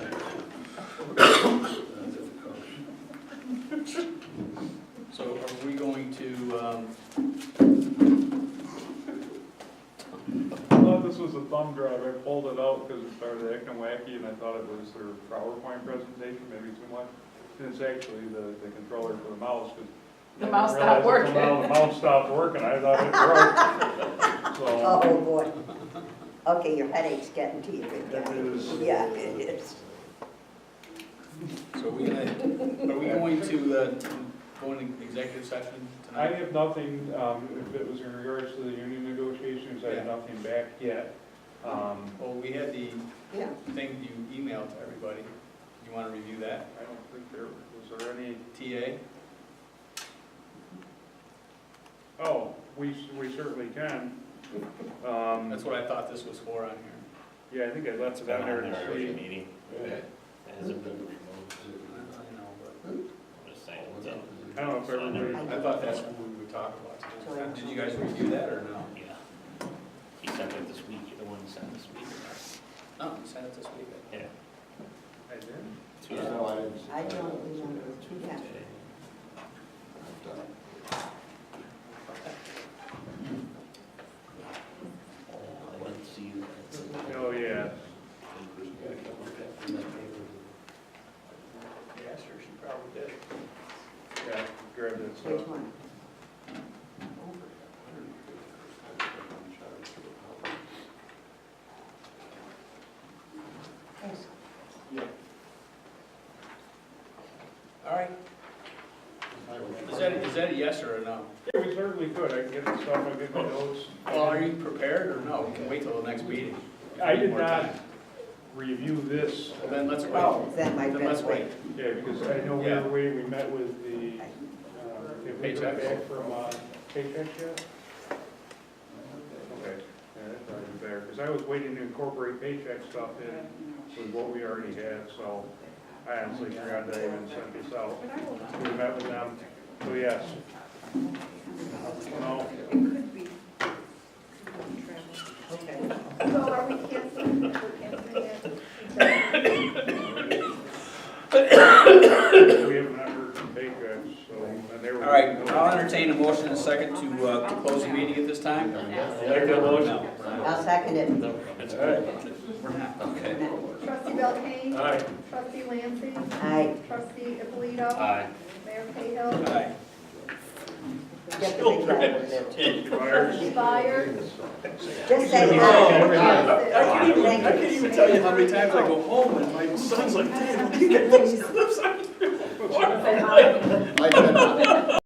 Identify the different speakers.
Speaker 1: um,
Speaker 2: Becky, and I thought it was her PowerPoint presentation, maybe too much. And It's actually the, the controller for the mouse, 'cause
Speaker 3: The
Speaker 2: I didn't
Speaker 3: mouse stopped
Speaker 2: realize it till now The mouse stopped working, I thought it broke. So,
Speaker 4: Oh, boy. Okay, your headache's getting to you. good
Speaker 2: It
Speaker 4: guy.
Speaker 2: is.
Speaker 4: Yeah, it is.
Speaker 1: So are we gonna, are we going to, uh, go into executive session
Speaker 2: I
Speaker 1: tonight?
Speaker 2: have nothing, um, if it was in regards to the union negotiations, I have
Speaker 1: Yeah.
Speaker 2: nothing back yet. Um,
Speaker 1: Well, we had the
Speaker 4: Yeah.
Speaker 1: thing you emailed to everybody. You wanna review that?
Speaker 2: I don't think there, was there any,
Speaker 1: TA?
Speaker 2: oh, we, we certainly can. Um,
Speaker 1: That's what I thought this was for on here.
Speaker 2: yeah, I think I left it out there to see.
Speaker 5: meeting. It hasn't been removed.
Speaker 1: I know,
Speaker 5: I'm just saying, so.
Speaker 2: I don't know if everybody,
Speaker 1: but I thought that's what we would talk about. tonight. Did you guys review that or no?
Speaker 5: Yeah. He sent it this week, you're the one who sent it this week.
Speaker 1: No, we Oh, sent it this week.
Speaker 5: Yeah.
Speaker 2: I did.
Speaker 5: Tuesday.
Speaker 4: I don't remember. Yeah.
Speaker 5: I didn't see you.
Speaker 2: Oh, yeah.
Speaker 1: Yeah, sure, she probably did.
Speaker 2: Yeah, grab that
Speaker 4: Which
Speaker 2: stuff.
Speaker 4: one? Yes.
Speaker 1: All right. Is that, is that a yes or a no?
Speaker 2: Yeah, we certainly could, I can get the stuff, I get my notes.
Speaker 1: Well, are Oh, you prepared or no? We can wait till the next meeting.
Speaker 2: I did not review this,
Speaker 1: Well, Then let's wait.
Speaker 4: Oh, that might
Speaker 1: Then let's
Speaker 4: best
Speaker 1: wait.
Speaker 4: way.
Speaker 2: yeah, because I know we
Speaker 1: Yeah.
Speaker 2: were waiting, we met with the, uh, if we got
Speaker 1: Paychecks.
Speaker 2: back from, uh, paycheck yet? Okay, yeah, that's probably better, because I was waiting to incorporate paycheck stuff in with what we already had, so I honestly forgot that I even sent this out. We met with them, so yes. No,
Speaker 4: Okay.
Speaker 6: So are we canceling, we're canceling that?
Speaker 2: we have not heard from paychecks, so, and they
Speaker 1: All
Speaker 2: were.
Speaker 1: right, I'll entertain a motion in a second to, uh, to close the meeting at this time.
Speaker 5: There you go, motion.
Speaker 4: I'll second it.
Speaker 5: It's
Speaker 1: All right. We're not, okay.
Speaker 6: Trustee Belkane?
Speaker 5: Aye.
Speaker 6: Trustee Lancy?
Speaker 4: I
Speaker 6: Trustee Alito?
Speaker 5: Aye.
Speaker 6: Mayor Cahill?
Speaker 1: Aye.
Speaker 4: get the big one.
Speaker 6: Trustee Byers?
Speaker 4: Just say
Speaker 1: Oh.
Speaker 4: aye.
Speaker 6: Yes.
Speaker 1: can't even, I can't even tell you how many times I go home and my son's like, Dad, look at those clips. I'm-
Speaker 7: I cannot.